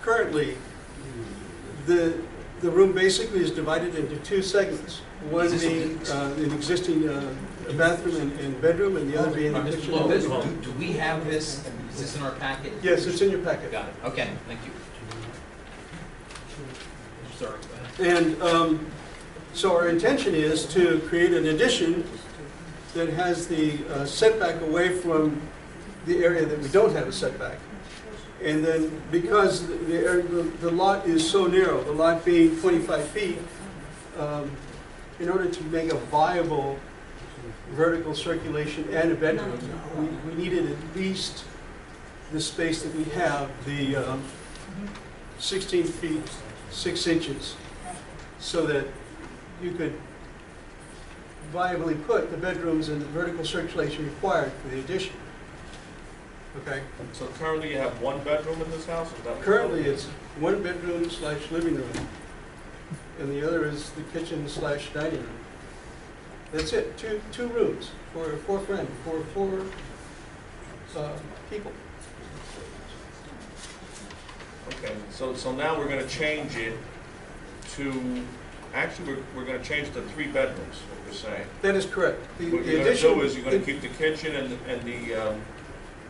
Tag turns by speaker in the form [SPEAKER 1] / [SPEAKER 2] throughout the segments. [SPEAKER 1] currently, the, the room basically is divided into two segments. One being uh, an existing uh, bathroom and- and bedroom, and the other being the
[SPEAKER 2] Mr.
[SPEAKER 1] kitchen. and
[SPEAKER 2] Lopez,
[SPEAKER 1] living room.
[SPEAKER 2] do, do we have this, is this in our packet?
[SPEAKER 1] Yes, it's in your packet.
[SPEAKER 2] Got it, okay, thank you. Sorry, go ahead.
[SPEAKER 1] And um, so our intention is to create an addition that has the uh, setback away from the area that we don't have a setback. And then, because the- the area- the the lot is so narrow, the lot being 25 feet, um, in order to make a viable vertical circulation and a bedroom, we- we needed at least the space that we have, the um, 16 feet, 6 inches, so that you could viably put the bedrooms and the vertical circulation required for the addition. Okay?
[SPEAKER 3] So currently you have one bedroom in this house, is that? what-
[SPEAKER 1] Currently, it's one bedroom slash living room, and the other is the kitchen slash dining room. That's it, two, two rooms for four friends, for four uh, people.
[SPEAKER 3] Okay, so, so now we're gonna change it to, actually, we're, we're gonna change to three bedrooms, what we're saying.
[SPEAKER 1] That is correct. The
[SPEAKER 3] What
[SPEAKER 1] the
[SPEAKER 3] you're gonna do
[SPEAKER 1] addition
[SPEAKER 3] is you're gonna keep the kitchen and, the- and the um,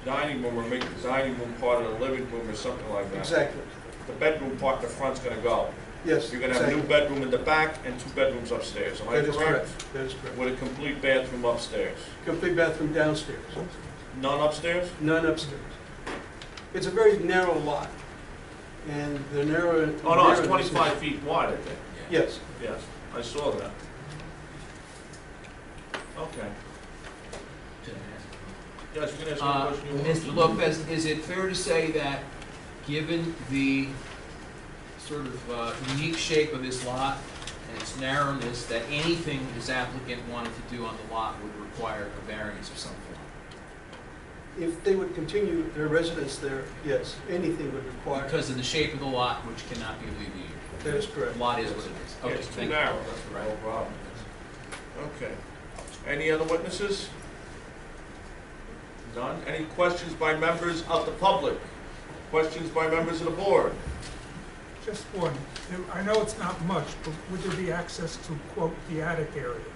[SPEAKER 3] dining room, or make the dining room part of the living room or something like that.
[SPEAKER 1] Exactly,
[SPEAKER 3] The bedroom part, the front's gonna go.
[SPEAKER 1] yes.
[SPEAKER 3] You're gonna have a new
[SPEAKER 1] exactly.
[SPEAKER 3] bedroom in the back and two bedrooms upstairs, am I
[SPEAKER 1] That is
[SPEAKER 3] correct?
[SPEAKER 1] correct, that is correct.
[SPEAKER 3] With a complete bathroom upstairs.
[SPEAKER 1] Complete bathroom downstairs,
[SPEAKER 3] None upstairs?
[SPEAKER 1] none upstairs. It's a very narrow lot, and the narrow.
[SPEAKER 3] Oh, no, it's
[SPEAKER 1] narrowness is-
[SPEAKER 3] twenty-five feet wide, I think.
[SPEAKER 1] Yes,
[SPEAKER 3] Yes, I saw that. Okay, yes, you can ask
[SPEAKER 2] Uh,
[SPEAKER 3] me a question.
[SPEAKER 2] Mr. Lopez, is it fair to say that, given the sort of uh, unique shape of this lot and its narrowness, that anything this applicant wanted to do on the lot would require a variance of some form?
[SPEAKER 1] if they would continue their residence there, yes, anything would require.
[SPEAKER 2] Because of the shape of the lot, which cannot be alleviated.
[SPEAKER 1] That is correct.
[SPEAKER 2] The lot is what it is.
[SPEAKER 3] Yeah,
[SPEAKER 2] Okay,
[SPEAKER 3] It's too
[SPEAKER 2] thank you.
[SPEAKER 3] narrow, that's the whole problem. Okay, any other witnesses? None, any questions by members of the public? Questions by members of the board?
[SPEAKER 4] Just one. There- I know it's not much, but would there be access to, quote, the attic area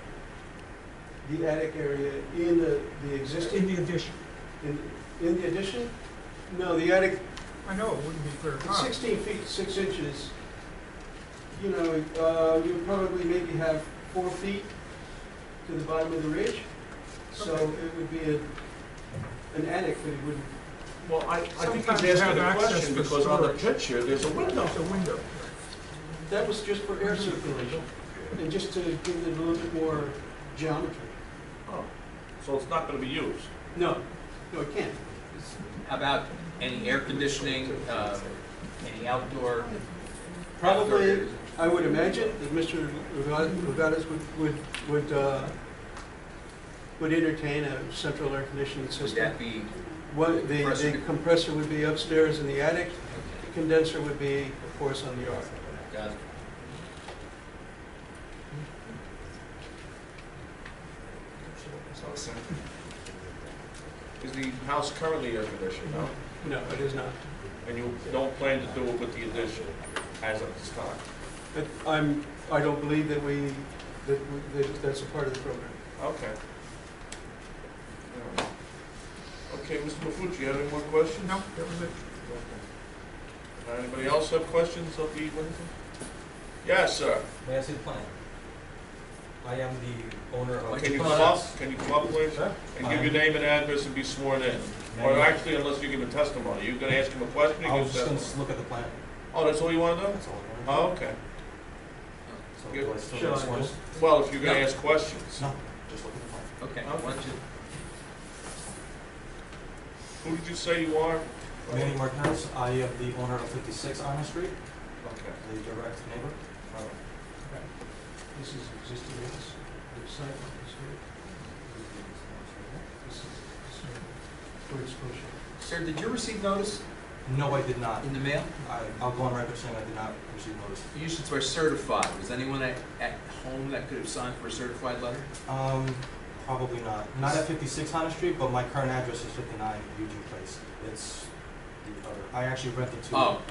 [SPEAKER 1] The attic area in the, the
[SPEAKER 4] in
[SPEAKER 1] existing,
[SPEAKER 4] the addition?
[SPEAKER 1] in, in the addition? No, the attic,
[SPEAKER 4] I know it wouldn't be very high.
[SPEAKER 1] sixteen feet, six inches. You know, uh, you probably maybe have four feet to the bottom of the ridge. So
[SPEAKER 4] Okay.
[SPEAKER 1] it would be a, an attic, but it wouldn't,
[SPEAKER 3] Well, I, I think
[SPEAKER 4] Sometimes
[SPEAKER 3] he's
[SPEAKER 4] have
[SPEAKER 3] asking a
[SPEAKER 4] access
[SPEAKER 3] question
[SPEAKER 4] for
[SPEAKER 3] because on the
[SPEAKER 4] storage.
[SPEAKER 3] picture, there's a window.
[SPEAKER 4] There's a window.
[SPEAKER 1] that was just for air circulation. And just to give it a little bit more geometry.
[SPEAKER 3] Oh, So it's not gonna be used.
[SPEAKER 1] No, no, it can't.
[SPEAKER 2] How About any air conditioning, uh, any outdoor?
[SPEAKER 1] Probably,
[SPEAKER 2] outdoor-
[SPEAKER 1] I would imagine that Mr. Regatas would, would, would, uh, would entertain a central air conditioning
[SPEAKER 2] Would
[SPEAKER 1] system.
[SPEAKER 2] that be?
[SPEAKER 1] What, the, the compressor would be upstairs in the attic, the
[SPEAKER 2] okay,
[SPEAKER 1] condenser would be, of course, on the yard.
[SPEAKER 2] got it.
[SPEAKER 3] Is the house currently air conditioned, no?
[SPEAKER 1] No, it is not.
[SPEAKER 3] And you don't plan to do it with the addition as of this time?
[SPEAKER 1] But I'm, I don't believe that we, that, we- that that's a part of the program.
[SPEAKER 3] Okay. Okay, Mr. Mafucci, you have any more questions?
[SPEAKER 4] No, that was it.
[SPEAKER 3] Okay. Anybody else have questions of the witnesses? Yes, sir.
[SPEAKER 5] Massive plan. I am the owner of.
[SPEAKER 3] Can you come up, can you come up, please?
[SPEAKER 5] Sir?
[SPEAKER 3] And give your name and address and be sworn in. Or actually, unless you give a testimony, you gonna ask him a question, you
[SPEAKER 5] I
[SPEAKER 3] give
[SPEAKER 5] was just
[SPEAKER 3] testimony.
[SPEAKER 5] gonna s- look at the plan.
[SPEAKER 3] Oh, that's all you wanna do?
[SPEAKER 5] That's all I
[SPEAKER 3] Oh,
[SPEAKER 5] wanted.
[SPEAKER 3] okay.
[SPEAKER 5] So
[SPEAKER 3] you-
[SPEAKER 5] do I still
[SPEAKER 1] shall
[SPEAKER 5] get
[SPEAKER 1] I
[SPEAKER 5] sworn in?
[SPEAKER 1] just-
[SPEAKER 3] Well, if you're gonna
[SPEAKER 2] No.
[SPEAKER 3] ask questions.
[SPEAKER 5] No, just look at the plan.
[SPEAKER 2] Okay,
[SPEAKER 3] Okay.
[SPEAKER 2] one, two.
[SPEAKER 3] Who did you say you are?
[SPEAKER 5] Manny Martinez, I am the owner of fifty-six Iron Street,
[SPEAKER 3] Okay.
[SPEAKER 5] the direct neighbor.
[SPEAKER 1] This is existing, this, the site is here, this is, for exposure.
[SPEAKER 2] Sir, did you receive notice
[SPEAKER 5] No, I did not.
[SPEAKER 2] in the mail?
[SPEAKER 5] I, I'll go on record saying I did not receive notice.
[SPEAKER 2] You should swear certified. Was anyone at, at home that could have signed for a certified letter?
[SPEAKER 5] Um, probably not. Not at fifty-six Iron Street, but my current address is fifty-nine Eugene Place. It's the other, I actually rented to.
[SPEAKER 2] Oh,